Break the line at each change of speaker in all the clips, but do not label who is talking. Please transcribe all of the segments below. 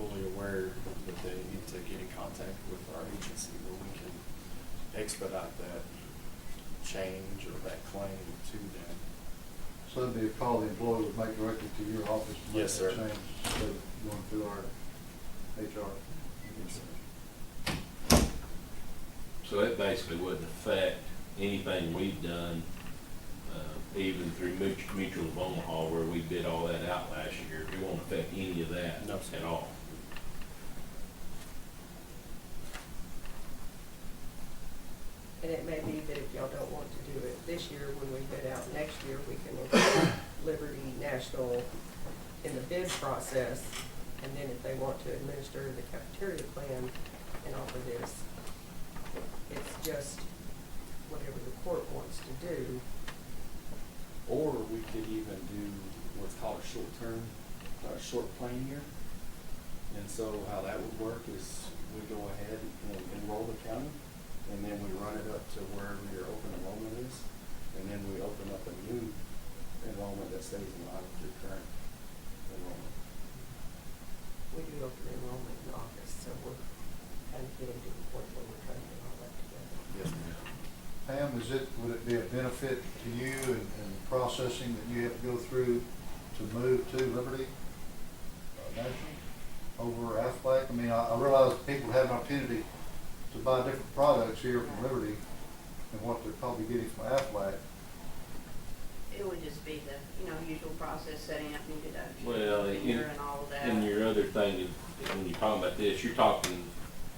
aware that they need to get in contact with our agency where we can expedite that change or that claim to them.
So that'd be a call the employee would make directly to your office to make
Yes,
that
sir.
change, instead of going through our HR.
Yes, sir.
So it basically wouldn't affect anything we've done, uh, even through Mut- Mutual of Omaha where we bid all that out last year. It won't affect any of that
No, sir.
at all.
And it may be that if y'all don't want to do it this year, when we bid out next year, we can include Liberty National in the bid process. And then if they want to administer the cafeteria plan and offer this, it's just whatever the court wants to do.
Or we could even do what's called a short-term, uh, short plan year. And so how that would work is we go ahead and enroll the county, and then we run it up to wherever your open enrollment is, and then we open up a new enrollment that stays in line with your current enrollment.
We do open enrollment in August, so we're kind of getting to the point where we're trying to get all that together.
Yes, ma'am.
Pam, is it, would it be a benefit to you and, and the processing that you have to go through to move to Liberty uh, National over Aflac? I mean, I, I realize people have an opportunity to buy different products here from Liberty than what they're probably getting from Aflac.
It would just be the, you know, usual process, setting up new deductions.
Well,
and
in-
your And all of that.
And your other thing, is- when you're talking about this, you're talking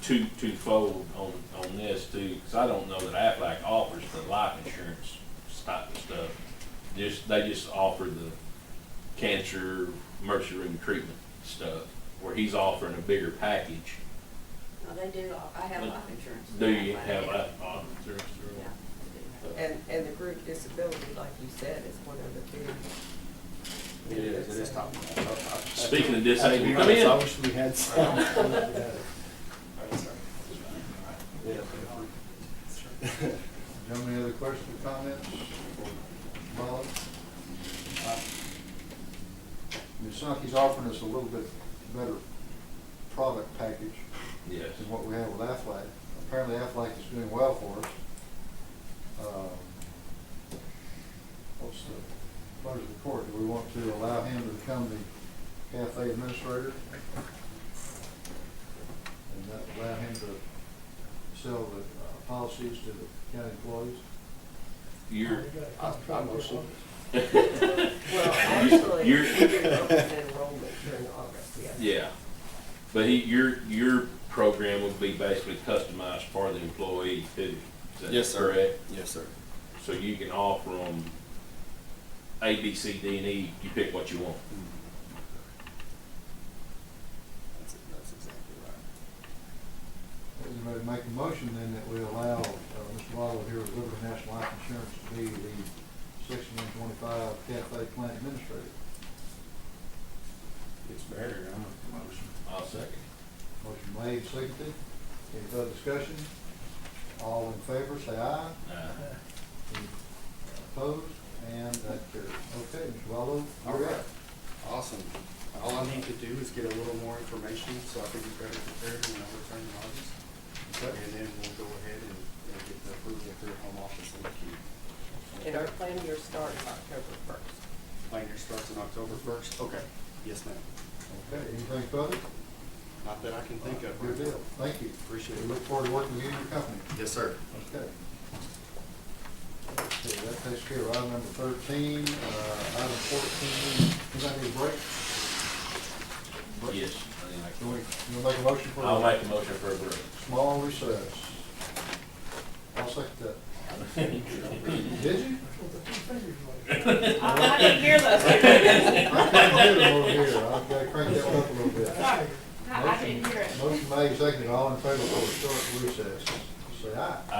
two, twofold on, on this too, because I don't know that Aflac offers the life insurance type of stuff. Just, they just offer the cancer emergency room treatment stuff, where he's offering a bigger package.
No, they do, I have life insurance.
Do you
I
have
do.
life insurance?
Yeah, I do.
And, and the group disability, like you said, is one of the big.
It is, it is top.
Speaking of disabled, come
I
in.
wish we had some. Yeah.
Gentlemen, any other questions or comments? Molly? Ms. Sankey's offering us a little bit better product package
Yes.
than what we have with Aflac. Apparently Aflac is doing well for us. Um, What's the pleasure of the court? Do we want to allow him to become the cafe administrator? And that allow him to sell the uh, policies to the county employees?
You're,
I, I motion.
Well, actually,
You're-
we do open enrollment during August, yes.
Yeah, but he, your, your program would be basically customized for the employee too. Is that
Yes, sir.
correct?
Yes, sir.
So you can offer them A, B, C, D, and E, you pick what you want.
That's, it. that's exactly right.
Everybody make a motion then that we allow uh, Mr. Waddle here with Liberty National Life Insurance to be the section one twenty-five cafe plant administrator.
It's better, I'm a promotion.
I'll second.
Motion made, seconded. Any further discussion? All in favor, say aye.
Uh,
Any Opposed? And that carries. Okay, Mr. Waddle,
All
you're
right,
up.
awesome. All I need to do is get a little more information so I can be better prepared when I return to August.
Okay.
And then we'll go ahead and, and get the approval through home office and the key.
And our plan year starts October first.
Plan year starts on October first? Okay. Yes, ma'am.
Okay, anything further?
Not that I can think of.
Good deal. Thank you.
Appreciate
We
it.
look forward to working with you and your company.
Yes, sir.
Okay. Okay, that takes care of item number thirteen, uh, item fourteen, does that need a break? Break?
yes.
Can we, can we make a motion for
I'll
a
make a motion for a break.
small recess? I'll second that. Did you?
I I didn't hear those. I
I can't do it over here, I've got to crank that one up a little bit.
I didn't hear it.
Motion made, seconded, all in favor for a short recess, say aye.